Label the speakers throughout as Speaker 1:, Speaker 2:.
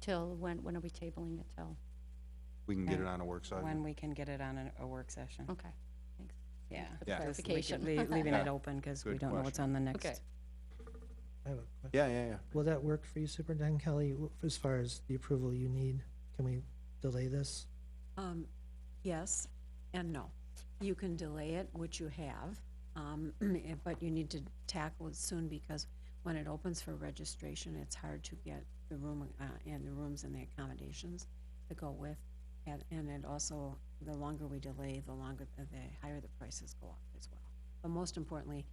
Speaker 1: till, when, when are we tabling it till?
Speaker 2: We can get it
Speaker 3: Yeah.
Speaker 2: on a work session.
Speaker 3: when we can get it on a- a work session.
Speaker 1: Okay, thanks.
Speaker 3: Yeah.
Speaker 1: for the
Speaker 2: Yeah.
Speaker 3: Just leave it-
Speaker 1: clarification.
Speaker 3: leave- Leaving it
Speaker 2: Yeah.
Speaker 3: open because we
Speaker 2: Good
Speaker 3: don't know what's on the
Speaker 1: Okay.
Speaker 3: next.
Speaker 4: I have a question.
Speaker 2: Yeah, yeah, yeah.
Speaker 4: Will that work for you, Superintendent Kelly, w- as far as the approval you need? Can we delay this?
Speaker 5: Um, yes and no. You can delay it, which you have, um, eh, but you need to tackle it soon because when it opens for registration, it's hard to get the room, uh, and the rooms and the accommodations to go with. And, and it also, the longer we delay, the longer, the higher the prices go up as well. But most importantly,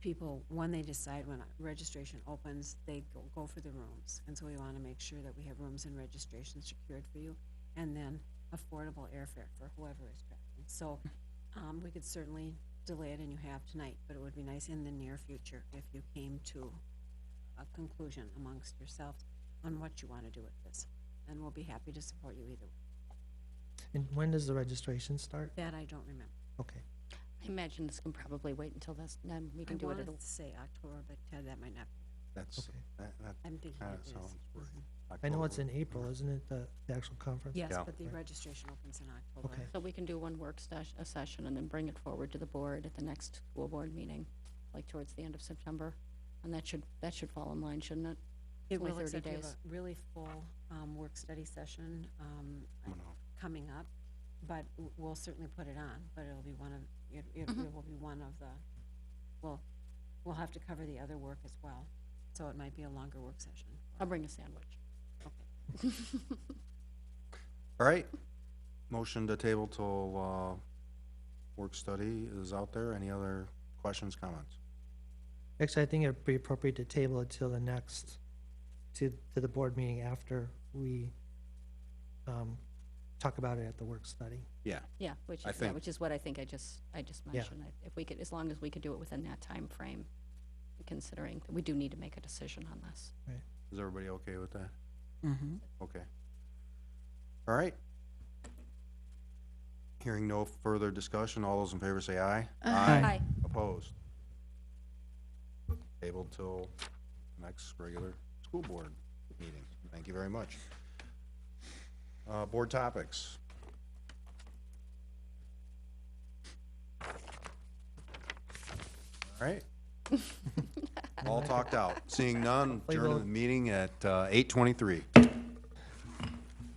Speaker 5: people, when they decide when registration opens, they go, go for the rooms. And so we want to make sure that we have rooms and registration secured for you, and then affordable airfare for whoever is traveling. So, um, we could certainly delay it, and you have tonight, but it would be nice in the near future if you came to a conclusion amongst yourselves on what you want to do with this. And we'll be happy to support you either. way.
Speaker 4: And when does the registration start?
Speaker 5: That I don't remember.
Speaker 4: Okay.
Speaker 1: I imagine this can probably wait until this, then we
Speaker 5: I
Speaker 1: can do it
Speaker 5: wanted
Speaker 1: at a
Speaker 5: to say October, but Ted, that might not,
Speaker 2: That's,
Speaker 4: Okay.
Speaker 2: that, that
Speaker 5: I'm thinking
Speaker 2: kinda
Speaker 5: it
Speaker 2: sounds
Speaker 5: is.
Speaker 2: right.
Speaker 4: I know it's
Speaker 2: October.
Speaker 4: in April, isn't it, the the actual conference?
Speaker 5: Yes,
Speaker 2: Yeah.
Speaker 5: but the
Speaker 4: Right.
Speaker 5: registration opens in October.
Speaker 4: Okay.
Speaker 1: So we can do one work sesh- a session and then bring it forward to the board at the next school board meeting, like towards the end of September. And that should, that should fall in line, shouldn't it?
Speaker 5: It
Speaker 1: Only
Speaker 5: will,
Speaker 1: 30
Speaker 5: except we have
Speaker 1: days.
Speaker 5: a really full, um, work-study session, um,
Speaker 2: I'm gonna-
Speaker 5: coming up, but w- we'll certainly put it on, but it'll be one of, it, it it will be one of the, well, we'll have to cover the other work as well, so it might be a longer work session.
Speaker 1: I'll bring a sandwich.
Speaker 2: All right. Motion to table till, uh, work study is out there. Any other questions, comments?
Speaker 4: Actually, I think it'd be appropriate to table it till the next, to, to the board meeting after we um, talk about it at the work study.
Speaker 2: Yeah.
Speaker 1: Yeah, which
Speaker 2: I
Speaker 1: is, yeah,
Speaker 2: think-
Speaker 1: which is what I think I just, I just mentioned. I- If we could, as long as we could do it within that time frame, considering that we do need to make a decision on this.
Speaker 2: Is everybody okay with that?
Speaker 3: Mm-hmm.
Speaker 2: Okay. All right. Hearing no further discussion, all those in favor say aye.
Speaker 1: Aye.
Speaker 2: Opposed? Table till next regular school board meeting. Thank you very much. Uh, board topics. All right. All talked out. Seeing none, adjourn the meeting at, uh, eight twenty-three.